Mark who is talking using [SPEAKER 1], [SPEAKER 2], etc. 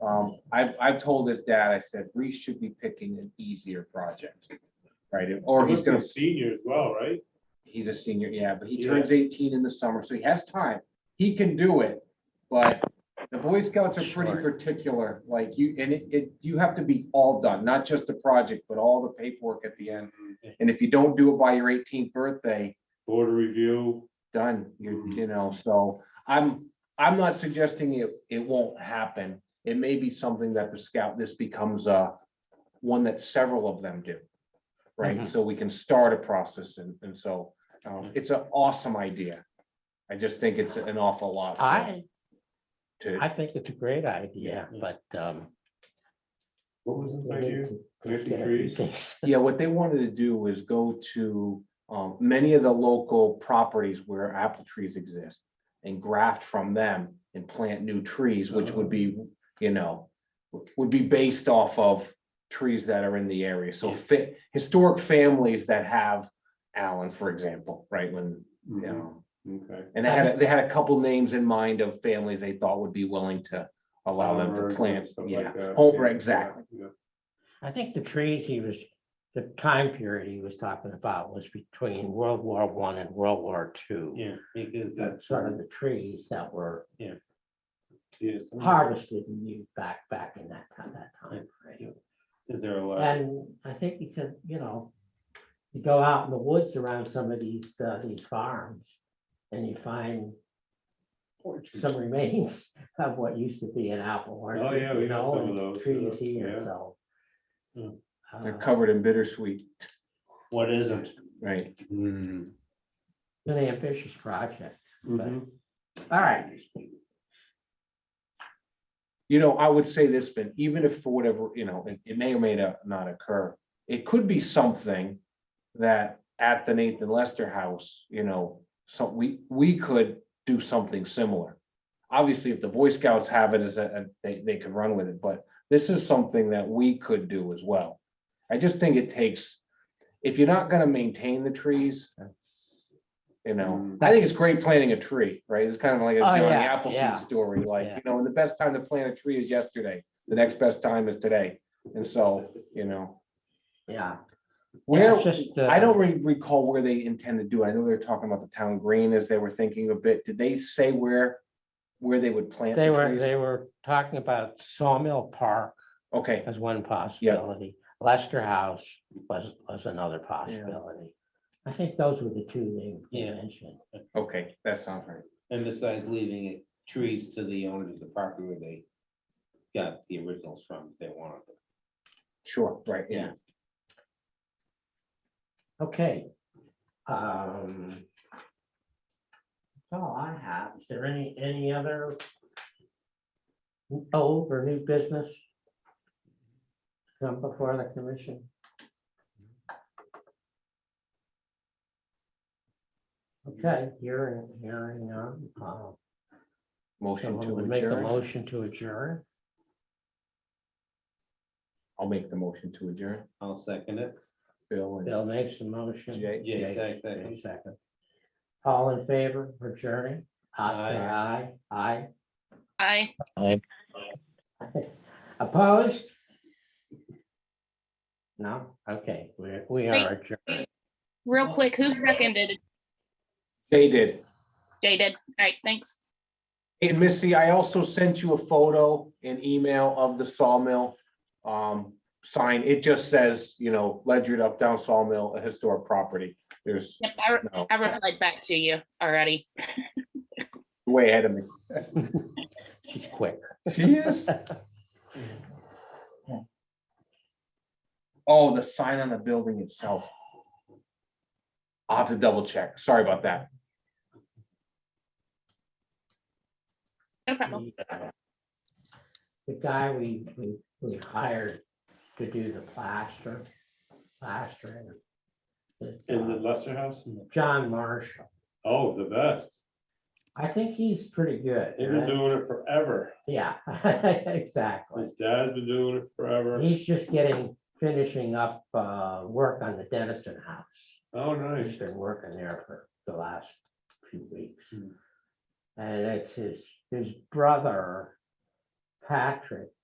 [SPEAKER 1] Um, I've, I've told his dad, I said, Reese should be picking an easier project. Right, or he's gonna,
[SPEAKER 2] Senior as well, right?
[SPEAKER 1] he's a senior, yeah, but he
[SPEAKER 2] Yeah.
[SPEAKER 1] turns eighteen in the summer, so he has time. He can do it, but the Boy Scouts are pretty
[SPEAKER 3] Sure.
[SPEAKER 1] particular, like you, and it, it, you have to be all done, not just the project, but all the paperwork at the end. And if you don't do it by your eighteenth birthday,
[SPEAKER 2] Board review.
[SPEAKER 1] done, you,
[SPEAKER 2] Mhm.
[SPEAKER 1] you know, so I'm, I'm not suggesting it, it won't happen. It may be something that the scout, this becomes a, one that several of them do. Right,
[SPEAKER 2] Mhm.
[SPEAKER 1] so we can start a process and, and so, um, it's an awesome idea. I just think it's an awful lot. for-
[SPEAKER 3] I,
[SPEAKER 1] To,
[SPEAKER 3] I think it's a great idea, but, um.
[SPEAKER 2] What was
[SPEAKER 3] we
[SPEAKER 2] the idea?
[SPEAKER 3] need to
[SPEAKER 2] Connecting
[SPEAKER 3] get a few
[SPEAKER 2] trees?
[SPEAKER 3] things.
[SPEAKER 1] yeah, what they wanted to do was go to, um, many of the local properties where apple trees exist. And graft from them and plant new trees, which would be,
[SPEAKER 2] Oh.
[SPEAKER 1] you know, would be based off of trees that are in the area. So
[SPEAKER 2] Yeah.
[SPEAKER 1] fit, historic families that have Allen, for example, right, when, you
[SPEAKER 2] Mhm,
[SPEAKER 1] know.
[SPEAKER 2] Okay.
[SPEAKER 1] And they had, they had a couple names in mind of families they thought would be willing to allow them
[SPEAKER 2] Farmers
[SPEAKER 1] to
[SPEAKER 2] and
[SPEAKER 1] plant,
[SPEAKER 2] stuff like
[SPEAKER 1] yeah,
[SPEAKER 2] that,
[SPEAKER 1] home,
[SPEAKER 2] yeah,
[SPEAKER 1] right, exactly.
[SPEAKER 2] yeah,
[SPEAKER 3] I think the trees he was, the time period he was talking about was between World War One and World War Two.
[SPEAKER 2] Yeah, because
[SPEAKER 3] That's
[SPEAKER 2] that's.
[SPEAKER 3] sort of the trees that were
[SPEAKER 2] Yes.
[SPEAKER 3] harvested and used back, back in that, ti- that time frame.
[SPEAKER 2] Is there a lot?
[SPEAKER 3] And I think he said, you know, you go out in the woods around some of these, uh, these farms and you find some remains of what used to be an apple orchard.
[SPEAKER 2] Oh, yeah, we
[SPEAKER 3] you
[SPEAKER 2] got
[SPEAKER 3] know,
[SPEAKER 2] some of
[SPEAKER 3] and
[SPEAKER 2] those,
[SPEAKER 3] Trees
[SPEAKER 2] yeah,
[SPEAKER 3] here,
[SPEAKER 2] yeah.
[SPEAKER 3] so.
[SPEAKER 2] Yeah.
[SPEAKER 1] They're
[SPEAKER 3] uh,
[SPEAKER 1] covered in bittersweet,
[SPEAKER 2] What is it?
[SPEAKER 1] right? Mm-hmm.
[SPEAKER 3] An ambitious project.
[SPEAKER 2] Mhm.
[SPEAKER 3] All right,
[SPEAKER 1] You know, I would say this, Ben, even if for whatever, you know, it, it may or may not- not occur, it could be something that at the Nathan Lester House, you know, so we, we could do something similar. Obviously, if the Boy Scouts have it as a, a- they, they could run with it, but this is something that we could do as well. I just think it takes, if you're not gonna maintain the trees,
[SPEAKER 3] that's,
[SPEAKER 1] you know,
[SPEAKER 2] Mm.
[SPEAKER 1] I think it's great planting a tree, right? It's kind of like a
[SPEAKER 3] Oh,
[SPEAKER 1] Johnny
[SPEAKER 3] yeah, yeah.
[SPEAKER 1] Appleseed story, like,
[SPEAKER 3] Yeah.
[SPEAKER 1] you know, and the best time to plant a tree is yesterday. The next best time is today. And so, you know,
[SPEAKER 3] yeah.
[SPEAKER 1] where,
[SPEAKER 3] it's just,
[SPEAKER 1] I don't
[SPEAKER 3] uh,
[SPEAKER 1] re- recall where they intend to do. it. I know they're talking about the town green as they were thinking a bit. Did they say where, where they would plant
[SPEAKER 3] They
[SPEAKER 1] the
[SPEAKER 3] were,
[SPEAKER 1] trees?
[SPEAKER 3] they were talking about Sawmill Park
[SPEAKER 1] Okay,
[SPEAKER 3] as one possibility. Lester House was, was another possibility. I think those were the two they- they
[SPEAKER 4] Yeah.
[SPEAKER 3] mentioned.
[SPEAKER 1] okay, that sounds right.
[SPEAKER 4] And besides leaving it trees to the owners of the property where they got the originals from, if they wanted them.
[SPEAKER 1] Sure, right, yeah.
[SPEAKER 3] Okay. um, That's all I have. Is there any, any other old or new business? Come before the commission? Okay, hearing, hearing none. uh,
[SPEAKER 1] Motion
[SPEAKER 3] Someone
[SPEAKER 1] to
[SPEAKER 3] would make a
[SPEAKER 1] adjourn.
[SPEAKER 3] motion to adjourn.
[SPEAKER 1] I'll make the motion to adjourn.
[SPEAKER 4] I'll second it.
[SPEAKER 1] Bill and
[SPEAKER 3] Bill makes a motion.
[SPEAKER 1] Jay.
[SPEAKER 4] Jay
[SPEAKER 3] Jay-
[SPEAKER 4] sec-
[SPEAKER 3] Jay
[SPEAKER 4] seconds.
[SPEAKER 3] Second. All in favor for adjourning? Aye, say aye,
[SPEAKER 5] Aye.
[SPEAKER 3] aye. Opposed? No, okay, we're, we are adjourned.
[SPEAKER 5] Real quick, who seconded?
[SPEAKER 1] they did.
[SPEAKER 5] Jay did. All right, thanks.
[SPEAKER 1] And Missy, I also sent you a photo and email of the sawmill um sign. It just says, you know, Ledyard up down sawmill, a historic property. There's
[SPEAKER 5] Yep, I, re-
[SPEAKER 1] no
[SPEAKER 5] I replied back to you already.
[SPEAKER 1] way ahead of me.
[SPEAKER 3] She's quick.
[SPEAKER 1] She is. Oh, the sign on the building itself. I'll have to double check. Sorry about that.
[SPEAKER 5] No problem.
[SPEAKER 3] The guy we, we, we hired to do the plaster, plastering. is,
[SPEAKER 2] In the
[SPEAKER 3] uh,
[SPEAKER 2] Lester House?
[SPEAKER 3] John Marshall.
[SPEAKER 2] Oh, the best.
[SPEAKER 3] I think he's pretty good.
[SPEAKER 2] They've been
[SPEAKER 3] right?
[SPEAKER 2] doing it forever.
[SPEAKER 3] Yeah, exactly.
[SPEAKER 2] His dad's been doing it forever.
[SPEAKER 3] He's just getting, finishing up uh, work on the Dennison House.
[SPEAKER 2] Oh,
[SPEAKER 3] He's
[SPEAKER 2] nice.
[SPEAKER 3] been working there for the last few weeks.
[SPEAKER 2] Hmm.
[SPEAKER 3] And it's his, his brother, Patrick,